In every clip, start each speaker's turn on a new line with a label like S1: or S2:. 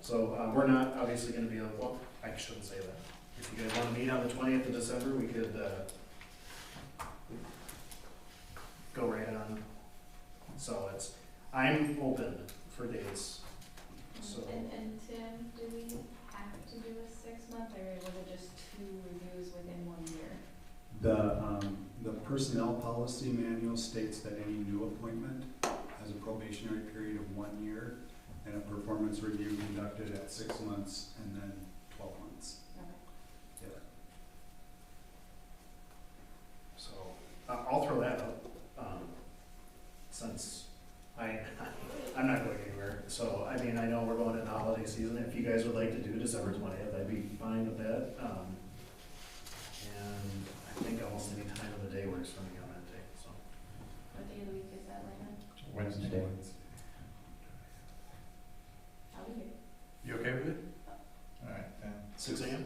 S1: So, uh, we're not obviously gonna be, able. well, I shouldn't say that. If you guys wanna meet on the twentieth of December, we could, uh, go right on solids. I'm open for dates, so.
S2: And, and Tim, do we have to do a six month or was it just two reviews within one year?
S3: The, um, the personnel policy manual states that any new appointment has a probationary period of one year and a performance review conducted at six months and then twelve months.
S1: So, I- I'll throw that up, um, since I, I'm not going anywhere. So, I mean, I know we're going into holiday season, if you guys would like to do December twentieth, I'd be fine with that, um. And I think almost any time of the day works for me on that day, so.
S2: What day of the week is that, Lena?
S4: Wednesday.
S2: I'll be here.
S4: You okay with it? All right, then.
S1: Six AM?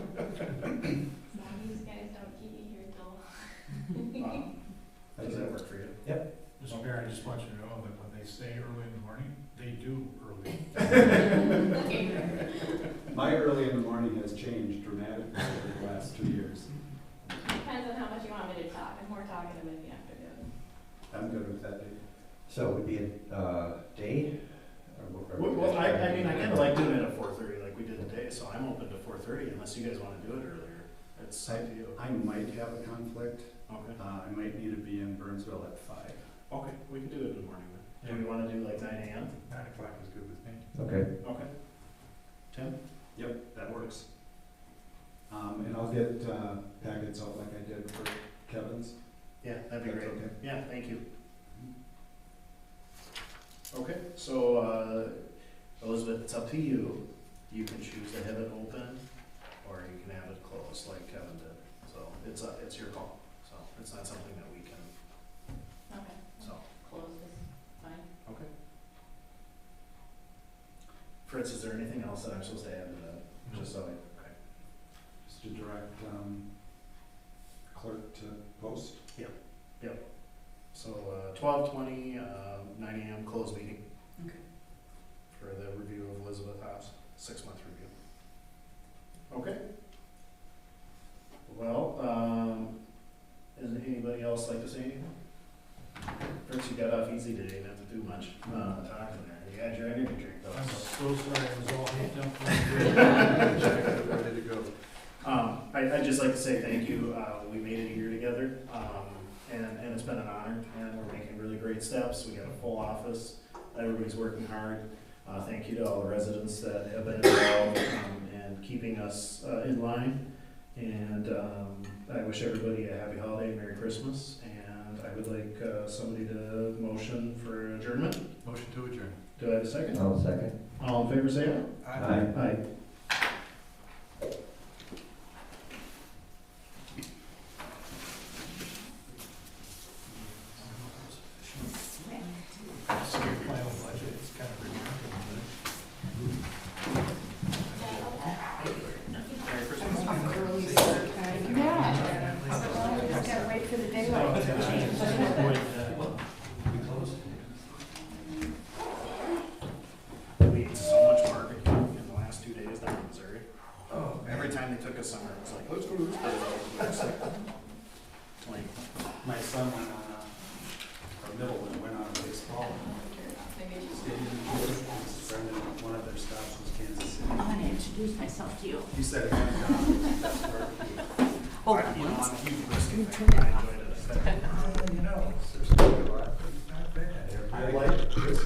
S2: As long as you guys don't keep me here till.
S1: Um, Does that work for you?
S4: Mr. Mayor, I just want you to know that when they say early in the morning, they do early.
S3: My early in the morning has changed dramatically over the last two years.
S2: Depends on how much you want me to talk, I'm more talkative in the afternoon.
S3: I'm good with that date.
S5: So it would be a uh, day? or what- or-
S1: Well, well, I, I mean, I kinda like doing it at four thirty, like we did today, so I'm open to four thirty, unless you guys wanna do it earlier. It's up to you.
S3: I might have a conflict.
S1: Okay.
S3: Uh, I might need to be in Burnsville at five.
S1: Okay, we can do it in the morning then.
S4: Yeah.
S1: Do we wanna do like nine AM?
S4: Nine o'clock is good with me.
S5: Okay,
S1: Okay. Tim?
S3: Yep, that works. Um, and I'll get, uh, packets out like I did for Kevin's.
S1: Yeah, that'd be
S3: That's
S1: great.
S3: okay.
S1: Yeah, thank you. Okay, so, uh, Elizabeth, it's up to you. You can choose to have it open, or you can have it closed like Kevin did. So it's, uh, it's your call. So it's not something that we can,
S2: Okay.
S1: so,
S2: Close this, fine.
S1: okay. Fritz, is there anything else that I'm supposed to add to that? Just so I, okay.
S3: Just to direct, um, clerk to post.
S1: So, uh, twelve twenty, uh, nine AM, closed meeting.
S2: Okay.
S1: For the review of Elizabeth House, six-month review. Okay. Well, um, does anybody else like to say anything? First, you got off easy today, not to do much, uh, talking there. You had your energy drink though.
S4: I'm
S1: so-
S4: so sorry, I was all hit up. Ready to go.
S1: Um, I, I'd just like to say thank you. Uh, we made it a year together, um, and, and it's been an honor, and we're making really great steps. We got a full office. Everybody's working hard. Uh, thank you to all the residents that have been involved um, and keeping us uh, in line. And um, I wish everybody a happy holiday, Merry Christmas, and I would like uh, somebody to motion for adjournment.
S4: Motion to adjourn.
S1: Do I have a second?
S5: I'll second.
S1: All in favor, say aye.
S5: Aye.
S1: Aye.
S4: So your final budget is kind of remarkable.
S2: Yeah. gotta wait for the daylight to change.
S1: We ate so much barbecue in the last two days down in Missouri. Oh. Every time they took us somewhere, it was like, let's go to this place. It's like,
S3: My son went on a, or middle one went on a baseball.
S2: Maybe just.
S3: stadium tour. His friend at one of their stops was Kansas City.
S6: I'm gonna introduce myself to you.
S3: He said, "If I'm down, that's barbecue."
S6: Oh,
S1: I- You know,
S6: once.
S1: I'm a huge brisket fan. I enjoyed it.
S4: Well, You know, there's quite a lot, but it's not bad.
S3: I like this